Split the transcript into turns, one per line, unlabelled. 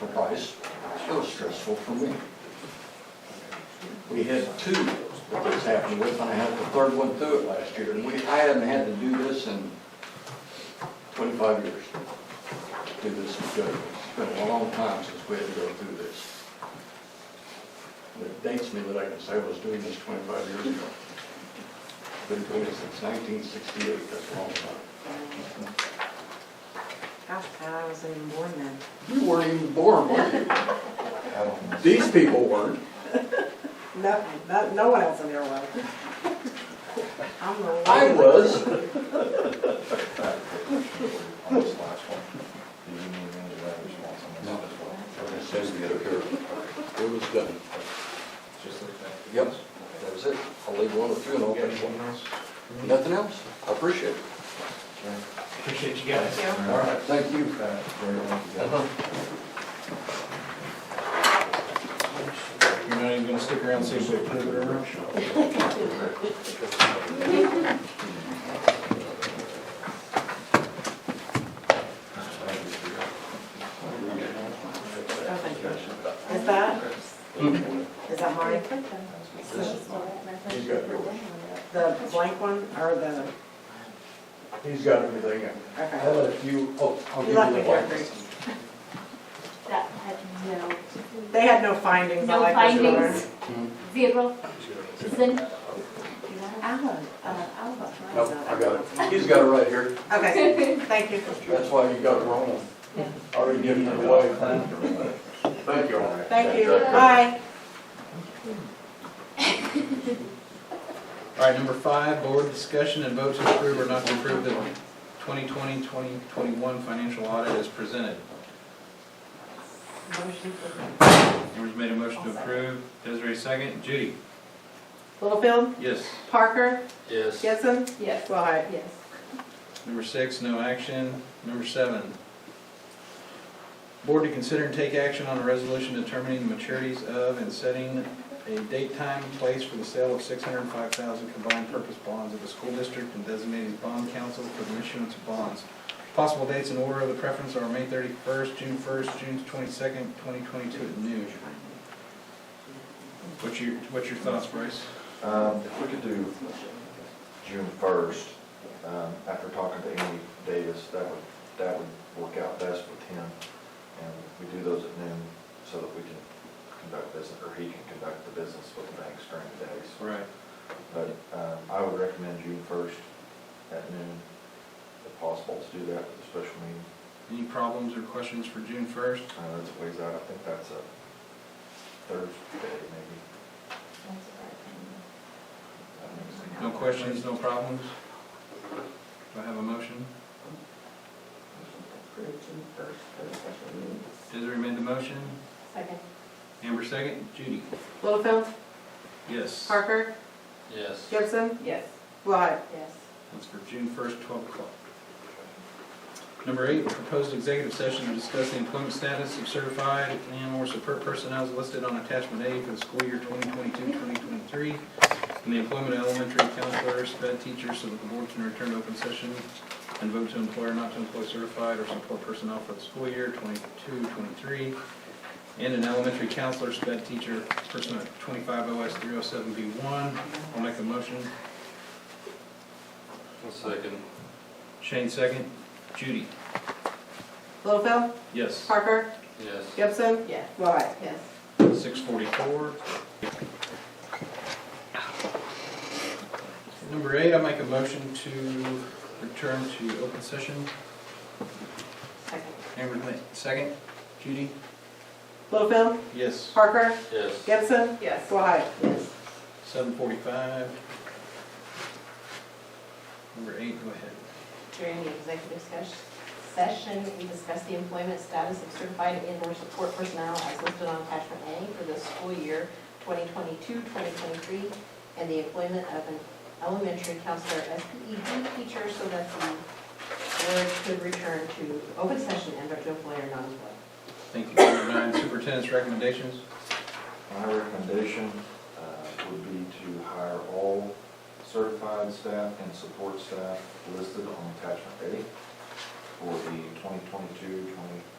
the price, it was stressful for me. We had two that this happened with, and I had the third one through it last year, and we, I hadn't had to do this in twenty-five years. Do this with judges, it's been a long time since we had to go through this. And It dates me that I can say I was doing this twenty-five years ago. Been doing it since nineteen sixty-eight, that's a long time.
Gosh, I wasn't even born then.
You weren't even born, were you? These people weren't.
No, no, no one else in there was. I'm the one.
I was.
On this last one, do you need any of that response on this as well?
It was done.
Just like that.
Yep, that was it. I'll leave one with you and I'll finish one.
else?
Nothing else? I appreciate it.
Appreciate you guys.
Yeah.
All right.
Thank you.
Uh, very well, you got it. You're not even gonna stick around, and see if we approve it or not?
Oh, thank you. Is that, is that mine? The blank one or the,
He's got everything. in. I
okay.
had a few, oh, I'll
You
give
left
you
me
the
here,
one.
Bruce.
That had no,
They had no findings. I
no
like this one.
findings, zero, Zin-
Alba, uh, Alba.
Nope, I got it. He's got it right here.
Okay, thank you.
That's why you got it wrong.
Mm-hmm.
I Already given it away. Thank you.
Thank you. Bye.
All right, number five, board discussion and vote to approve or not to approve the 2020, 2021 financial audit as presented.
Motion for-
Amber's made a motion to approve, Desiree second, Judy?
Littlefield,
Yes.
Parker,
Yes.
Gibson,
yes,
Willhite.
yes.
Number six, no action. Number seven, board to consider and take action on a resolution determining the maturities of and setting a date, time, and place for the sale of six hundred and five thousand combined purpose bonds of the school district and designated bond council for the issuance of bonds. Possible dates in order of the preference are May thirty-first, June first, June twenty-second, twenty twenty-two at noon. What's your, what's your thoughts, Bryce?
Um, if we could do June first, um, after talking to Andy Davis, that would, that would work out best with him. And we do those at noon so that we can conduct business, or he can conduct the business with the banks during the days.
Right.
But, um, I would recommend June first at noon, if possible, to do that with a special meeting.
Any problems or questions for June first?
Uh, that's a ways out, I think that's a Thursday maybe.
No questions, no problems? Do I have a motion? Desiree made the motion.
Second.
Amber second. Judy?
Littlefield,
Yes.
Parker,
Yes.
Gibson,
Yes.
Willhite.
Yes.
That's for June first, twelve o'clock. Number eight, proposed executive session to discuss the employment status of certified and or support personnel as listed on attachment A for the school year 2022-2023, and the employment of elementary counselors, sped teachers, so that the board can return to open session and vote to employ or not to employ certified or support personnel for the school year 22-23, and an elementary counselor, sped teacher, person at twenty-five OS three oh seven B one. I'll make the motion.
Second.
Shane second. Judy?
Littlefield,
Yes.
Parker,
Yes.
Gibson,
Yes.
Willhite.
Yes.
Six forty-four. Number eight, I make a motion to return to open session.
Second.
Amber, ma- second. Judy?
Littlefield,
Yes.
Parker,
Yes.
Gibson,
Yes.
Willhite.
Yes.
Seven forty-five. Number eight, go ahead.
During the executive ses- session, we discussed the employment status of certified and/or support personnel as listed on attachment A for the school year 2022-2023, and the employment of an elementary counselor SPED teacher so that the board could return to open session and vote to employ or not employ.
Thank you. Number nine, superintendent's recommendations.
My recommendation uh, would be to hire all certified staff and support staff listed on attachment A for the 2022,